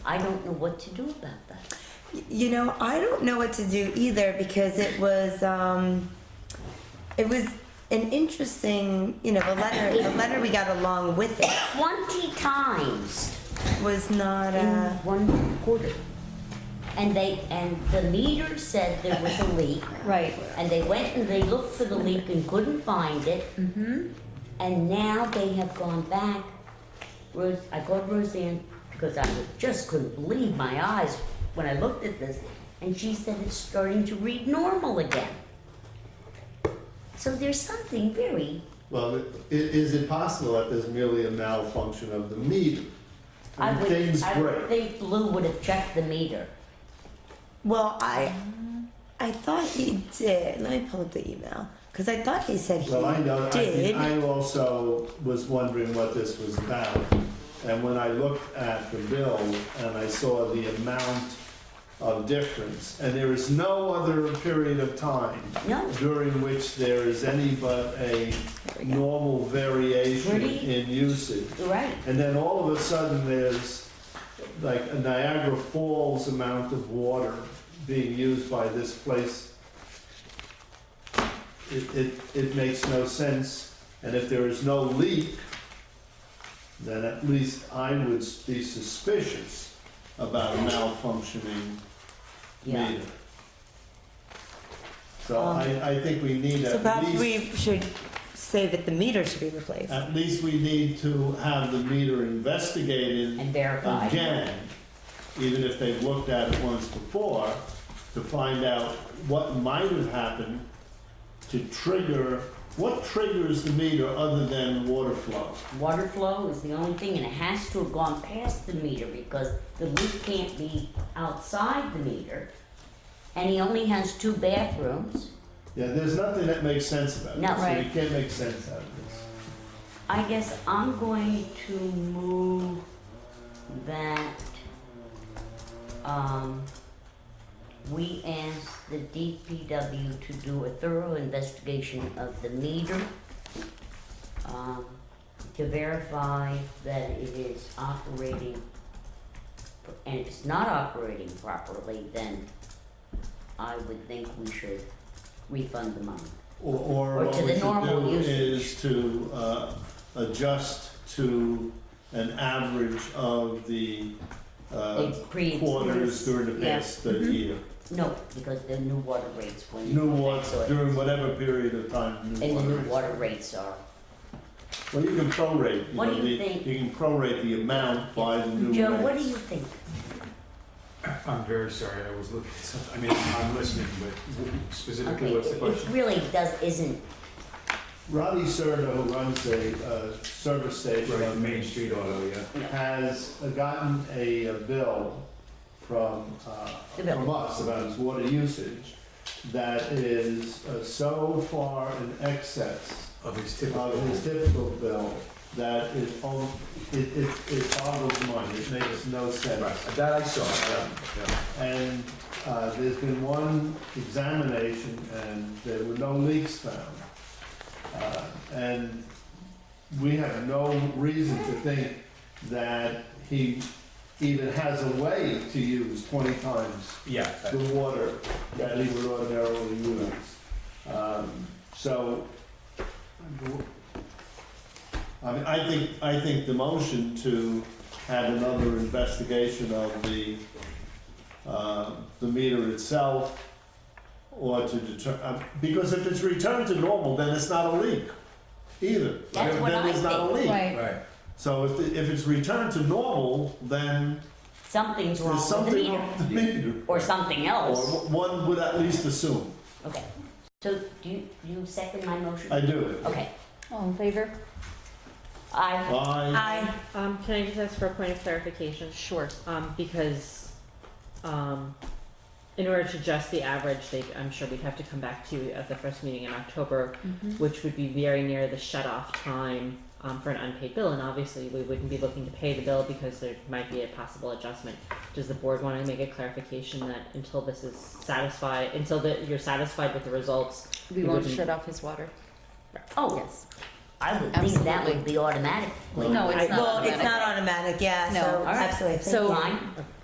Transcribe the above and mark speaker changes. Speaker 1: I don't know what to do about that.
Speaker 2: You know, I don't know what to do either because it was um, it was an interesting, you know, a letter. A letter we got along with it
Speaker 1: Twenty times
Speaker 2: was not
Speaker 1: in
Speaker 2: uh
Speaker 1: one quarter. And they, and the meter said there was a leak.
Speaker 2: right.
Speaker 1: And they went and they looked for the leak and couldn't find it. Mm-hmm. And now they have gone back. Rose, I called Roseanne because I just couldn't believe my eyes when I looked at this. And she said it's starting to read normal again. So there's something very,
Speaker 3: Well, it, it is impossible that there's merely a malfunction of the meter.
Speaker 1: I
Speaker 3: And
Speaker 1: would,
Speaker 3: Things
Speaker 1: I would
Speaker 3: break.
Speaker 1: think Lou would have checked the meter.
Speaker 2: Well, I I thought he did. Let me pull up the email because I thought he said he
Speaker 3: Well, I know, I
Speaker 2: did.
Speaker 3: mean, I also was wondering what this was about. And when I looked at the bill and I saw the amount of difference, and there is no other period of time
Speaker 1: No.
Speaker 3: during which there is any but a normal variation
Speaker 1: Pretty-
Speaker 3: in usage.
Speaker 1: You're right.
Speaker 3: And then all of a sudden, there's like a Niagara Falls amount of water being used by this place. It, it, it makes no sense, and if there is no leak, then at least I would be suspicious about a malfunctioning
Speaker 1: Yeah.
Speaker 3: meter. So I, I think we need
Speaker 2: Um, so
Speaker 3: at
Speaker 2: perhaps
Speaker 3: least, Uh,
Speaker 2: we should say that the meter should be replaced.
Speaker 3: at least we need to have the meter investigated
Speaker 1: And verified.
Speaker 3: again, even if they've looked at it once before, to find out what might have happened to trigger, what triggers the meter other than water flow?
Speaker 1: Water flow is the only thing, and it has to have gone past the meter because the leak can't be outside the meter. And he only has two bathrooms.
Speaker 3: Yeah, there's nothing that makes sense about it,
Speaker 1: No.
Speaker 3: so you
Speaker 1: Right.
Speaker 3: can't make sense out of this.
Speaker 1: I guess I'm going to move that, um, we ask the DPW to do a thorough investigation of the meter, um, to verify that it is operating, and if it's not operating properly, then I would think we should refund the money.
Speaker 3: Or, or
Speaker 1: Or
Speaker 3: what
Speaker 1: to
Speaker 3: we
Speaker 1: the
Speaker 3: should
Speaker 1: normal
Speaker 3: do
Speaker 1: usage.
Speaker 3: is to, uh, adjust to an average of the, uh,
Speaker 1: It's pre-
Speaker 3: quarters during the
Speaker 1: Yeah. Mm-hmm.
Speaker 3: past uh, year.
Speaker 1: No, because the new water rates when you
Speaker 3: New
Speaker 1: go back
Speaker 3: water,
Speaker 1: to it,
Speaker 3: during whatever period of time, new
Speaker 1: And the
Speaker 3: water.
Speaker 1: new
Speaker 3: is.
Speaker 1: water rates are,
Speaker 3: Well, you can prorate, you
Speaker 1: What
Speaker 3: know,
Speaker 1: do you
Speaker 3: the-
Speaker 1: think?
Speaker 3: you can prorate the amount by the new rates.
Speaker 1: Joe, what do you think?
Speaker 4: I'm very sorry, I was looking at something, I mean, I'm listening, but
Speaker 1: Okay,
Speaker 4: specifically, what's the
Speaker 1: it it
Speaker 4: question?
Speaker 1: really does, isn't,
Speaker 3: Rodney Serta, who runs a, uh, service station
Speaker 4: Right,
Speaker 3: on
Speaker 4: Main Street Auto, yeah.
Speaker 3: has gotten a uh, bill from, uh,
Speaker 1: The bill.
Speaker 3: from us about his water usage that is uh, so far in excess
Speaker 4: Of his
Speaker 3: of
Speaker 4: typical,
Speaker 3: his typical bill that it, al- it, it, it boggles money, it makes no sense.
Speaker 4: right, that I saw, yeah, yeah.
Speaker 3: And uh, there's been one examination and there were no leaks found. Uh, And we have no reason to think that he even has a way to use 20 times
Speaker 4: Yeah, that-
Speaker 3: the water that he would ordinarily use. Um, So, I mean, I think, I think the motion to have another investigation of the, uh, the meter itself, or to deter, uh, because if it's returned to normal, then it's not a leak either.
Speaker 1: That's what
Speaker 3: Then it's
Speaker 1: I
Speaker 3: not a
Speaker 1: think.
Speaker 3: leak.
Speaker 5: Right.
Speaker 4: right.
Speaker 3: So if, the- if it's returned to normal, then
Speaker 1: something's wrong
Speaker 3: there's
Speaker 1: with the
Speaker 3: something
Speaker 1: meter,
Speaker 3: wrong with the meter.
Speaker 1: or something
Speaker 3: Or
Speaker 1: else,
Speaker 3: one would at least assume.
Speaker 1: okay. So, do you, you second my motion?
Speaker 3: I do.
Speaker 1: Okay,
Speaker 5: All in favor?
Speaker 1: I,
Speaker 3: I,
Speaker 2: I
Speaker 6: Um, can I just ask for a point of clarification?
Speaker 5: Sure.
Speaker 6: Um, because, um, in order to adjust the average, they, I'm sure we'd have to come back to you at the first meeting in October,
Speaker 5: Mm-hmm.
Speaker 6: which would be very near the shut-off time, um, for an unpaid bill, and obviously we wouldn't be looking to pay the bill because there might be a possible adjustment. Does the board wanna make a clarification that until this is satisfied, until that you're satisfied with the results?
Speaker 5: We
Speaker 6: we
Speaker 5: won't
Speaker 6: wouldn't-
Speaker 5: shut off his water.
Speaker 1: oh,
Speaker 5: Yes.
Speaker 1: I would think that would be automatic.
Speaker 3: No,
Speaker 5: No, it's not
Speaker 2: well, it's
Speaker 5: automatic.
Speaker 2: not automatic. Yeah.
Speaker 5: No.
Speaker 2: So
Speaker 5: All
Speaker 1: right.
Speaker 2: absolutely.
Speaker 5: So-
Speaker 1: Line,